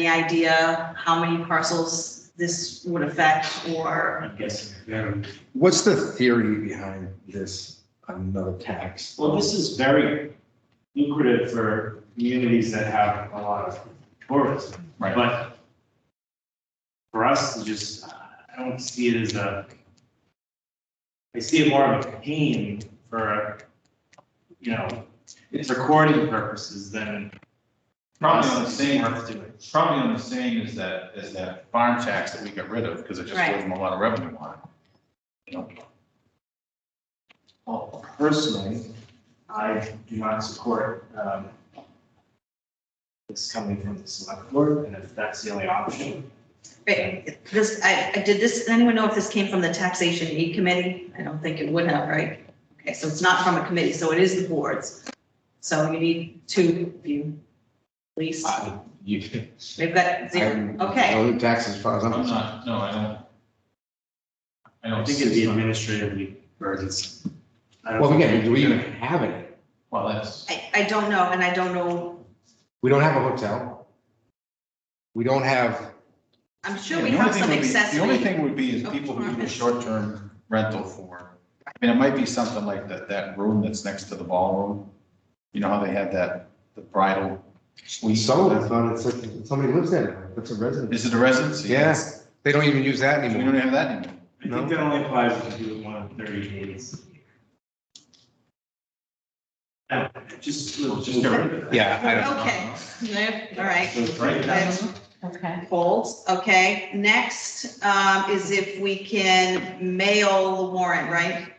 any idea how many parcels this would affect or? I'm guessing. very- What's the theory behind this, another tax? Well, this is very lucrative for communities that have a lot of tourism. Right. But for us to just, I don't see it as a, I see it more of a pain for, you know, recording purposes than Probably on the us same, worth doing. probably on the same as that, as that farm tax that we got rid of, because it just Right. gave them a lot of revenue on it. You know, Well, personally, I do not support, um, this coming from the select board, and if that's the only option. Wait, This, I, I- did this, anyone know if this came from the taxation aid committee? I don't think it would have, right? Okay, so it's not from a committee, so it is the boards. So you need two of you, at least. Uh, I- You. We've got zero, okay. Other taxes, as far as I'm I'm concerned. not, no, I don't. I I don't think think it'd be it's, administratively burdensome. I don't Well, think- again, do we even have any? well, that's, I, I don't know, and I don't know, We don't have a hotel. We don't have, I'm Yeah, sure we the only have thing some would be- The only accessory. thing would be is people who do a short-term rental for, I mean, it might be something like that, that room that's next to the ballroom. You know how they had that, the bridal we suite? sold, I thought it's, like somebody lives there, that's a residence. Is it a residency? Yes, they don't even use that We anymore. don't have that anymore. I think that only applies if you do it one in thirty days. No, just, we'll just get rid of that. Yeah, I don't, Uh-huh. Okay, Yeah, all right. So it's right now. Okay. Holds, okay. Next, um, is if we can mail the warrant, right?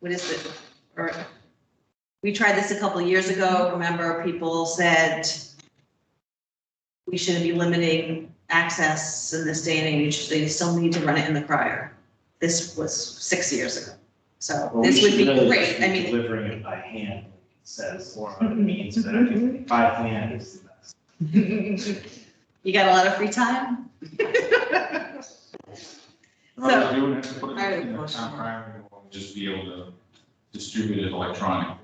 What is it? Or, we tried this a couple of years ago, remember, people said we shouldn't be limiting access in this day and age, they still need to run it in the crier. This was six years ago, so Well, we this would should be really great, I be mean, Delivering it by hand, like it says, or on a means that I think by hand is the best. you got a lot of free time? So- Or we would have to put I it have a in the question. town crier, and Just be able to distribute it electronically,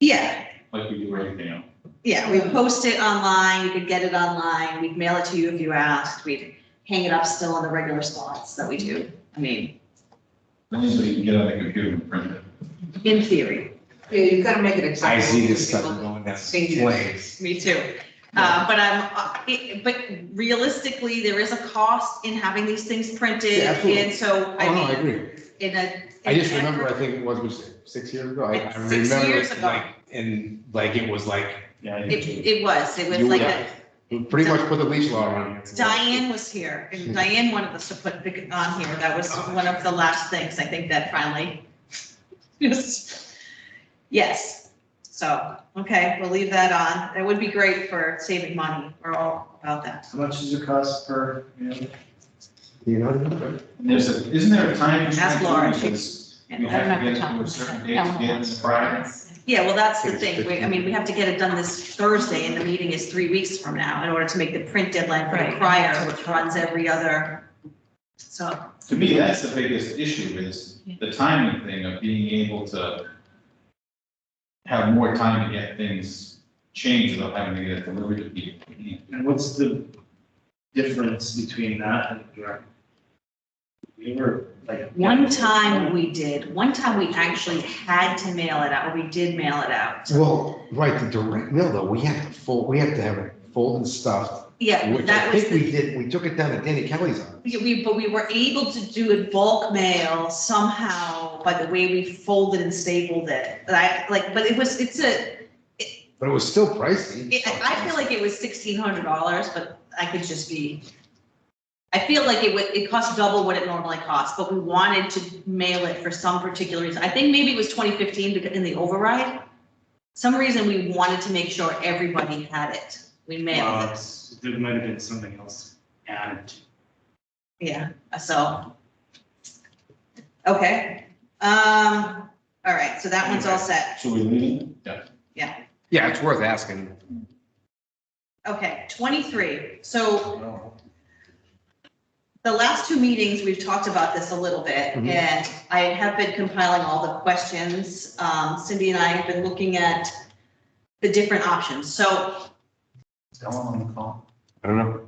Yeah, like we do everything else. Yeah, we post it online, you could get it online, we'd mail it to you if you asked, we'd hang it up still in the regular spots that we do. I mean, Then so you can get on the computer and print it. in theory, Yeah, you've got to make it I accessible. see this stuff going down flames. me too. Uh, but I'm, uh, it- but realistically, there is a cost in having these things printed, Yeah, absolutely. and so, Oh, I no, I mean, agree. in a. I in just an remember, I effort- think it was, was it six years ago? I I Six remember years it ago. like, and like it was like, Yeah. I It, think- it was, it was You like, would- a- pretty much put the leash law on it. Diane was here, and Diane wanted us to put it on here, that was one of the last things, I think that finally. Yes. Yes, so, okay, we'll leave that on, that would be great for saving money, we're all about that. How much does it cost per, you know? You know? And there's a, isn't there a time? Ask Laura, she's- You have to get it to a certain date to get it in the prior. uh, Yeah, well, that's the thing, we, I mean, we have to get it done this Thursday, and the meeting is three weeks from now, in order to make the print deadline for the Right. crier, which runs every other. So, To me, that's the biggest issue is the timing thing of being able to have more time to get things changed without having to get it delivered to people. And what's the difference between that and direct? We were like. One time we did, one time we actually had to mail it out, or we did mail it out. Well, right, the direct mail though, we had to fold, we had to have it folded and stuffed, Yeah, which I that was, think the- we did, we took it down to Danny Kelly's office. yeah, we, but we were able to do it bulk mail somehow by the way we folded and stapled it. And I like, but it was, it's a, But it was still pricey. it- I feel like it was sixteen hundred dollars, but I could just be. I feel like it would, it cost double what it normally costs, but we wanted to mail it for some particular reason. I think maybe it was twenty fifteen because in the override. Some reason we wanted to make sure everybody had it. We mailed Well, it, it's- There might have been something else added. to yeah, so. Okay, um, all right, so that one's all set. it. Should we leave it? Yeah. Yeah, it's worth asking. Okay, twenty-three, so the last two meetings, we've talked about this a little bit, Mhm. and I have been compiling all the questions. Um, Cindy and I have been looking at the different options. So Is Ellen on the call? I don't know.